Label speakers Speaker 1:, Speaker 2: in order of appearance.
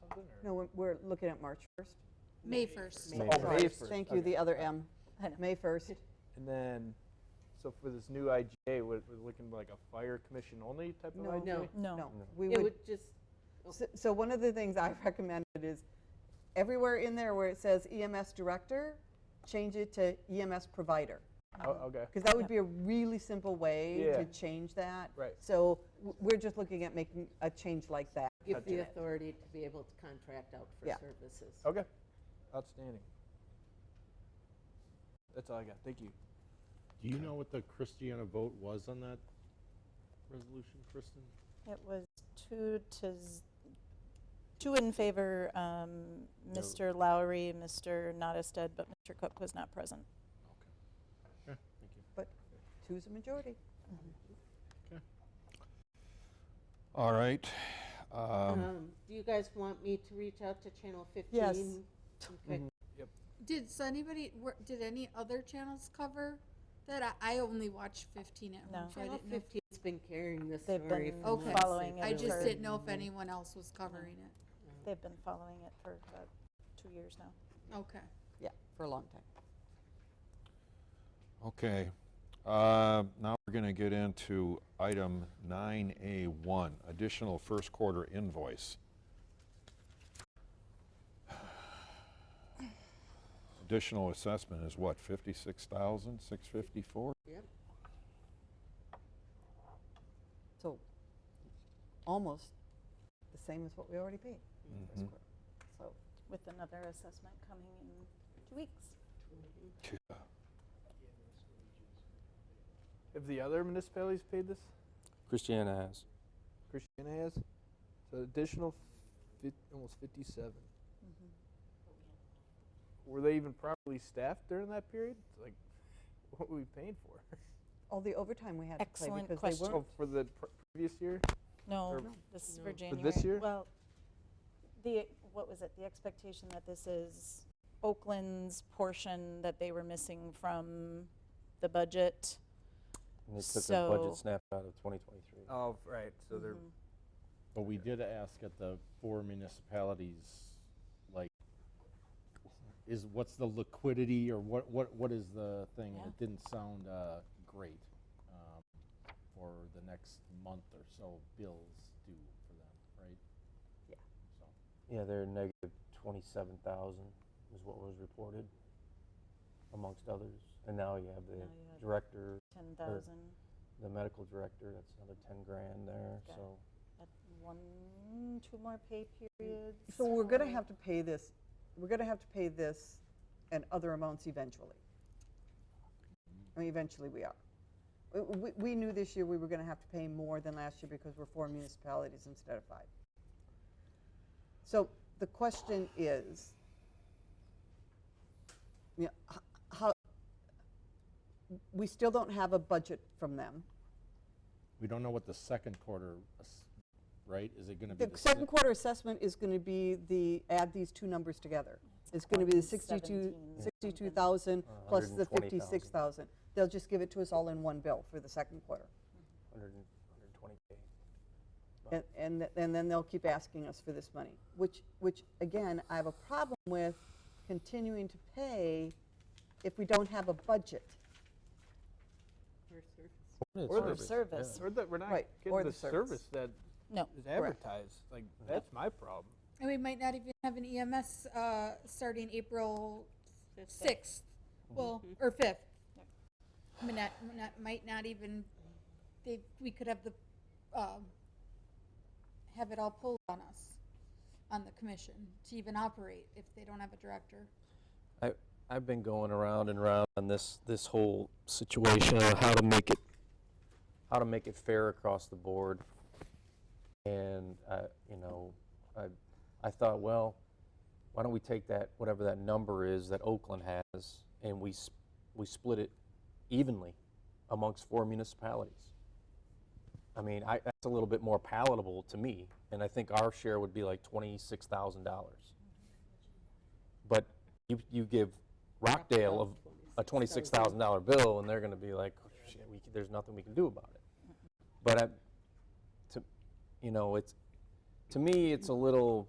Speaker 1: something, or?
Speaker 2: No, we're- we're looking at March 1st.
Speaker 3: May 1st.
Speaker 1: May
Speaker 2: Sorry.
Speaker 1: first. May first,
Speaker 2: Thank you,
Speaker 1: okay.
Speaker 2: the other M.
Speaker 3: I know.
Speaker 2: May 1st.
Speaker 1: And then, so for this new IGA, we're, we're looking like a fire commission only type of
Speaker 2: No,
Speaker 1: IGA?
Speaker 4: No.
Speaker 2: No,
Speaker 3: No.
Speaker 2: we
Speaker 4: It
Speaker 2: would,
Speaker 4: would just,
Speaker 2: so- so one of the things I've recommended is everywhere in there where it says EMS director, change it to EMS provider.
Speaker 1: Oh, okay,
Speaker 2: Because that would be a really simple way
Speaker 1: Yeah.
Speaker 2: to change that.
Speaker 1: Right.
Speaker 2: So w- we're just looking at making a change like that.
Speaker 4: give
Speaker 1: Touch
Speaker 4: the
Speaker 1: it.
Speaker 4: authority to be able to contract out for
Speaker 2: Yeah.
Speaker 4: services.
Speaker 1: okay, outstanding. That's all I got, thank you.
Speaker 5: Do you know what the Christiana vote was on that resolution, Kristen?
Speaker 6: It was two to, z- two in favor, um,
Speaker 5: No.
Speaker 6: Mr. Lowry, Mr. Nottestead, but Mr. Cook was not present.
Speaker 5: Okay, thank you.
Speaker 2: Two's a majority.
Speaker 7: All right. Um,
Speaker 4: Um, Do you guys want me to reach out to Channel 15?
Speaker 2: Yes.
Speaker 4: Okay.
Speaker 3: Did, so anybody, were- did any other channels cover that? I, I only watched 15 at home,
Speaker 6: No.
Speaker 3: so I
Speaker 4: Channel
Speaker 3: didn't know.
Speaker 4: 15's been carrying this
Speaker 6: They've
Speaker 4: story
Speaker 6: been
Speaker 4: for months.
Speaker 3: Okay.
Speaker 6: following it
Speaker 3: I just
Speaker 6: for-
Speaker 3: didn't know
Speaker 4: Mm-hmm.
Speaker 3: if anyone else was covering it.
Speaker 6: They've been following it for about two years now.
Speaker 3: Okay.
Speaker 2: Yeah, for a long time.
Speaker 7: okay. Uh, now we're going to get into item 9A1, additional first quarter invoice. Additional assessment is what, 56,654?
Speaker 4: Yep.
Speaker 2: So almost the same as what we already paid.
Speaker 1: Mm-hmm.
Speaker 2: in the first
Speaker 7: Mhm.
Speaker 2: quarter. So
Speaker 6: with another assessment coming in two weeks.
Speaker 1: Have the other municipalities paid this?
Speaker 8: Christiana has.
Speaker 1: Christiana has? So additional fif- almost fifty-seven.
Speaker 2: Mm-hmm.
Speaker 1: Were they even properly staffed during that period? It's Like, what were we paying for?
Speaker 2: all the overtime we had to play
Speaker 6: Excellent
Speaker 2: because they
Speaker 6: question.
Speaker 2: weren't.
Speaker 1: Oh, for the pr- previous year?
Speaker 6: No,
Speaker 1: Or-
Speaker 6: this is for
Speaker 1: For
Speaker 6: January.
Speaker 1: this year?
Speaker 6: Well, the, what was it, the expectation that this is Oakland's portion that they were missing from the budget?
Speaker 8: And they took a
Speaker 6: So-
Speaker 8: budget snap out of 2023.
Speaker 1: Oh, right, so
Speaker 2: Mm-hmm.
Speaker 1: they're,
Speaker 5: But we did ask at the four municipalities, like, is, what's the liquidity or what, what, what is the thing?
Speaker 6: Yeah.
Speaker 5: It didn't sound uh, great um, for the next month or so bills due for them, right?
Speaker 2: Yeah.
Speaker 5: So,
Speaker 8: Yeah, they're negative 27,000 is what was reported amongst others. And now you have the
Speaker 6: Now you have-
Speaker 8: director,
Speaker 6: 10,000
Speaker 8: the medical director, that's another 10 grand there.
Speaker 6: Got it.
Speaker 8: So
Speaker 6: at one, two more pay periods.
Speaker 2: So we're going to have to pay this, we're going to have to pay this and other amounts eventually. I mean, eventually we are. We- We, we knew this year we were going to have to pay more than last year because we're four municipalities instead of five. So the question is, you know, h- how, we still don't have a budget from them.
Speaker 5: We don't know what the second quarter, ass- right? Is it going to be?
Speaker 2: The
Speaker 5: si-
Speaker 2: second quarter assessment is going to be the, add these two numbers together. It's going to be the 62
Speaker 6: 117
Speaker 2: 62,000
Speaker 8: Uh,
Speaker 2: plus the
Speaker 8: 120,000.
Speaker 2: 56,000. They'll just give it to us all in one bill for the second quarter.
Speaker 8: 100, 120K.
Speaker 2: And, and th- and then they'll keep asking us for this money, which, which again, I have a problem with continuing to pay if we don't have a budget.
Speaker 4: For service.
Speaker 2: Or
Speaker 6: For
Speaker 2: the
Speaker 6: service.
Speaker 1: or that we're not
Speaker 2: Right,
Speaker 1: getting
Speaker 2: or the
Speaker 1: the
Speaker 2: service.
Speaker 1: service that
Speaker 6: No.
Speaker 1: is advertised. Like, that's my problem.
Speaker 3: And we might not even have an EMS uh, starting April 6th, well, or 5th. I mean, that that might not even, they, we could have the, um, have it all pulled on us, on the commission, to even operate if they don't have a director.
Speaker 8: I, I've been going around and around on this, this whole situation on how to make it, how to make it fair across the board. And, I, you know, I, I thought, well, why don't we take that, whatever that number is that Oakland has, and we, s- we split it evenly amongst four municipalities? I mean, I, that's a little bit more palatable to me, and I think our share would be like twenty-six thousand dollars. But you, you give Rockdale of a twenty-six thousand dollar bill, and they're gonna be like, "Oh, shit, we, c- there's nothing we can do about it. But I, to, you know, it's, to me, it's a little,